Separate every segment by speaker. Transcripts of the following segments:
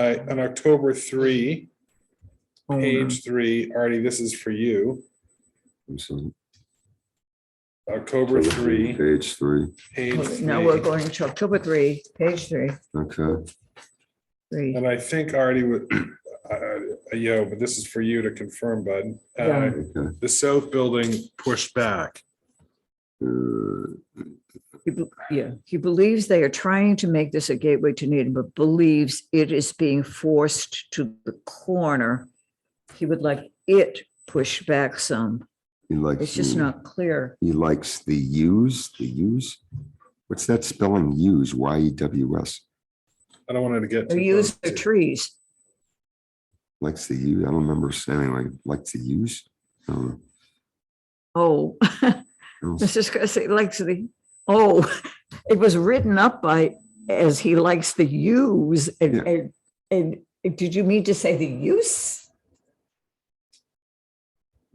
Speaker 1: uh, on October three,
Speaker 2: Hold on.
Speaker 1: page three, Artie, this is for you.
Speaker 3: So,
Speaker 1: October three,
Speaker 3: Page three,
Speaker 1: page
Speaker 2: Okay,
Speaker 1: three.
Speaker 2: Now we're going to October three, page three,
Speaker 3: okay,
Speaker 2: three.
Speaker 1: And I think Artie would, uh, uh, yo, but this is for you to confirm, bud. Uh,
Speaker 2: Yeah.
Speaker 3: okay.
Speaker 1: The south building pushed back.
Speaker 3: Uh,
Speaker 2: He be- Yeah, he believes they are trying to make this a gateway to Needham, but believes it is being forced to the corner. He would like it pushed back some.
Speaker 3: He likes.
Speaker 2: It's just
Speaker 3: the-
Speaker 2: not clear.
Speaker 3: He likes the U's, the U's. What's that spelling? U's, Y E W S.
Speaker 1: I don't want it to get.
Speaker 2: They're
Speaker 1: too
Speaker 2: used for
Speaker 1: close to-
Speaker 2: trees.
Speaker 3: Likes the U. I don't remember saying like, likes the U's. I don't know.
Speaker 2: Oh, Mrs. Cussy likes the, oh, it was written up by, as he likes the use and,
Speaker 3: Yeah.
Speaker 2: and, and did you mean to say the use?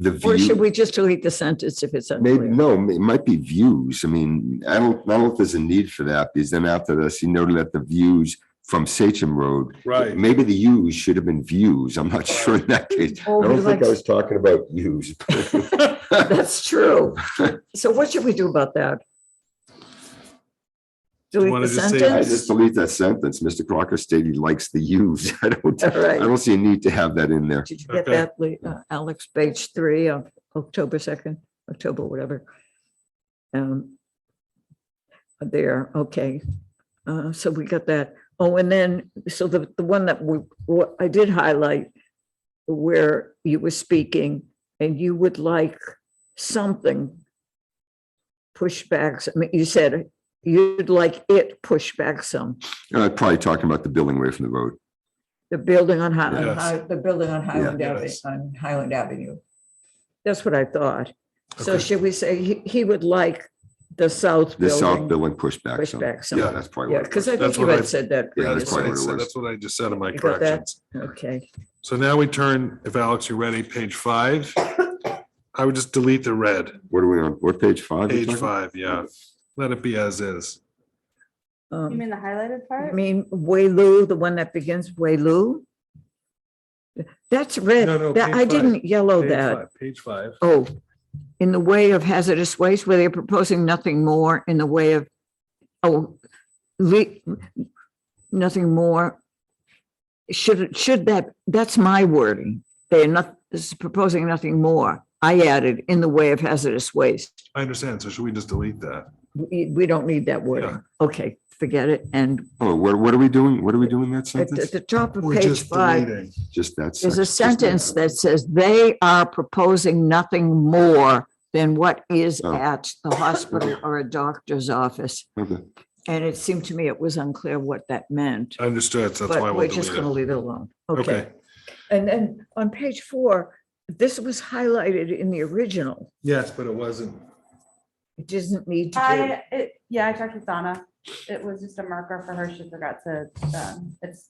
Speaker 3: The
Speaker 2: Or should
Speaker 3: view,
Speaker 2: we just delete the sentence if it's
Speaker 3: maybe,
Speaker 2: unclear?
Speaker 3: no, it might be views. I mean, I don't, I don't know if there's a need for that because then after this, he noted that the views from Sachem Road.
Speaker 1: Right.
Speaker 3: Maybe the U's should have been views. I'm not sure in that case.
Speaker 2: Oh,
Speaker 3: I
Speaker 2: he
Speaker 3: don't think I
Speaker 2: likes-
Speaker 3: was talking about U's.
Speaker 2: That's true. So what should we do about that? Delete
Speaker 1: wanna
Speaker 2: the
Speaker 1: just say-
Speaker 3: I just
Speaker 2: sentence?
Speaker 3: delete that sentence. Mr. Crocker stated he likes the U's. I don't,
Speaker 2: All
Speaker 3: I
Speaker 2: right.
Speaker 3: don't see a need to have that in there.
Speaker 2: Did you get
Speaker 1: Okay.
Speaker 2: that, Lee- uh, Alex, page three of October second, October, whatever? Um, There, okay. Uh, so we got that. Oh, and then, so the, the one that we, what I did highlight where you were speaking and you would like something pushbacks, I mean, you said you'd like it pushed back some,
Speaker 3: Uh, probably talking about the billing way from the road.
Speaker 2: the building on Hi- on
Speaker 1: Yes.
Speaker 2: Hi, the building on Highland
Speaker 1: Yeah.
Speaker 2: Avenue,
Speaker 1: Yes.
Speaker 2: on Highland Avenue. That's what I thought. So
Speaker 1: Okay.
Speaker 2: should we say he, he would like the south
Speaker 3: The south
Speaker 2: building?
Speaker 3: billing pushback. zone.
Speaker 2: Pushback
Speaker 3: Yeah,
Speaker 2: some,
Speaker 3: that's probably.
Speaker 2: yeah,
Speaker 3: what it was.
Speaker 2: because I think
Speaker 1: That's
Speaker 2: you
Speaker 1: what I-
Speaker 2: had said that
Speaker 3: Yeah, that's
Speaker 1: That's what I
Speaker 2: previously.
Speaker 3: probably-
Speaker 1: said- that's what I just said in my
Speaker 2: You got that?
Speaker 1: corrections.
Speaker 2: Okay,
Speaker 1: So now we turn, if Alex, you're ready, page five. I would just delete the red,
Speaker 3: What are we on? What page five? you're
Speaker 1: page
Speaker 3: talking?
Speaker 1: five, yeah. Let it be as is.
Speaker 4: You
Speaker 2: um,
Speaker 4: mean the highlighted
Speaker 2: I
Speaker 4: part?
Speaker 2: mean, Waylu, the one that begins Waylu? That's
Speaker 1: No, no,
Speaker 2: red, That-
Speaker 1: page
Speaker 2: I
Speaker 1: five.
Speaker 2: didn't yellow
Speaker 1: Page
Speaker 2: Oh, that.
Speaker 1: five, Page five.
Speaker 2: oh, in the way of hazardous waste, where they're proposing nothing more in the way of, oh, le- nothing more. Should, should that, that's my wording. They're not, this is proposing nothing more. I added in the way of hazardous waste.
Speaker 1: I understand. So should we just delete that?
Speaker 2: We, we don't need that
Speaker 1: Yeah.
Speaker 2: wording. Okay, forget it. And
Speaker 3: Oh, what, what are we doing? What are we doing in that
Speaker 2: at the-
Speaker 3: sentence?
Speaker 2: the top of
Speaker 1: We're
Speaker 2: page
Speaker 1: just
Speaker 2: five,
Speaker 1: deleting.
Speaker 3: Just that.
Speaker 2: There's a
Speaker 3: section,
Speaker 2: sentence that says they are proposing nothing more than what is
Speaker 3: Oh.
Speaker 2: at the hospital or a doctor's office.
Speaker 3: just that. Okay.
Speaker 2: And it seemed to me it was unclear what that meant,
Speaker 1: Understood. So that's why
Speaker 2: but
Speaker 1: we'll
Speaker 2: we're just gonna
Speaker 1: delete it.
Speaker 2: leave it alone.
Speaker 1: Okay,
Speaker 2: Okay. And then on page four, this was highlighted in the original.
Speaker 1: yes, but it wasn't.
Speaker 2: It doesn't need to
Speaker 4: I, it, yeah, I talked with Donna. It was just a marker for her. She forgot to, um, it's,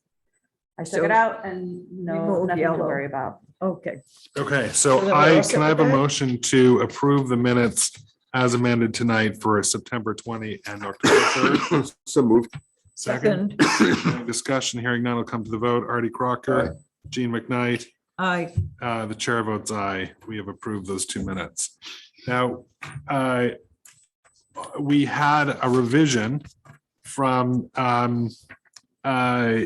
Speaker 4: I took
Speaker 2: So,
Speaker 4: it out and no,
Speaker 2: remove
Speaker 4: nothing to
Speaker 2: yellow.
Speaker 4: worry about.
Speaker 2: be. Okay,
Speaker 1: Okay,
Speaker 2: So then
Speaker 1: so
Speaker 2: we're
Speaker 1: I,
Speaker 2: all set
Speaker 1: can I
Speaker 2: with
Speaker 1: have a
Speaker 2: that?
Speaker 1: motion to approve the minutes as amended tonight for September twenty and October third?
Speaker 3: So moved.
Speaker 1: Second,
Speaker 2: second,
Speaker 1: No discussion, hearing none will come to the vote. Artie Crocker, Gene McKnight,
Speaker 2: I,
Speaker 1: Uh, the chair votes aye. We have approved those two minutes. Now, uh, we had a revision from, um, uh,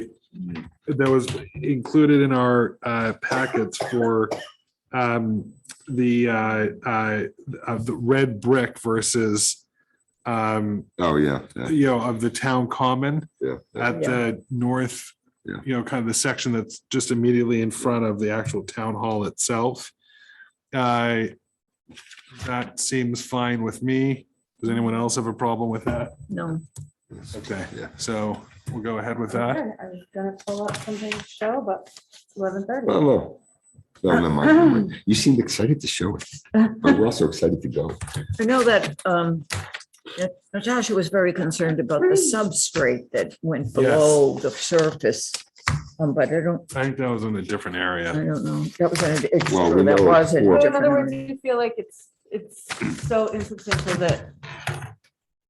Speaker 1: that was included in our, uh, packets for, um, the, uh, uh, of the red brick versus, um,
Speaker 3: Oh, yeah. yeah.
Speaker 1: you know, of the town common.
Speaker 3: Yeah.
Speaker 1: At the north,
Speaker 3: Yeah.
Speaker 1: you know, kind of the section that's just immediately in front of the actual town hall itself. Uh, that seems fine with me. Does anyone else have a problem with that?
Speaker 2: no,
Speaker 1: Okay,
Speaker 3: Yeah.
Speaker 1: so we'll go ahead with
Speaker 4: Okay,
Speaker 1: that.
Speaker 4: I was gonna pull up something to show, but eleven thirty.
Speaker 3: Oh, no. No, never mind, never mind. You seemed excited to show it, but we're also excited to go.
Speaker 2: I know that, um, that Natasha was very concerned about the substrate that went below the surface. Um, but I don't,
Speaker 1: I think that was in a different
Speaker 2: I
Speaker 1: area.
Speaker 2: don't know. That was, an- it's
Speaker 3: Well,
Speaker 2: true,
Speaker 3: we
Speaker 2: that
Speaker 3: know
Speaker 2: was a
Speaker 3: it's four.
Speaker 4: So in other words,
Speaker 2: different.
Speaker 4: you feel like it's, it's so insubstantial that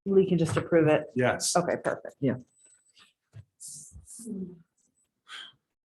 Speaker 4: we can just approve it.
Speaker 1: Yes.
Speaker 4: Okay, perfect.
Speaker 2: Yeah.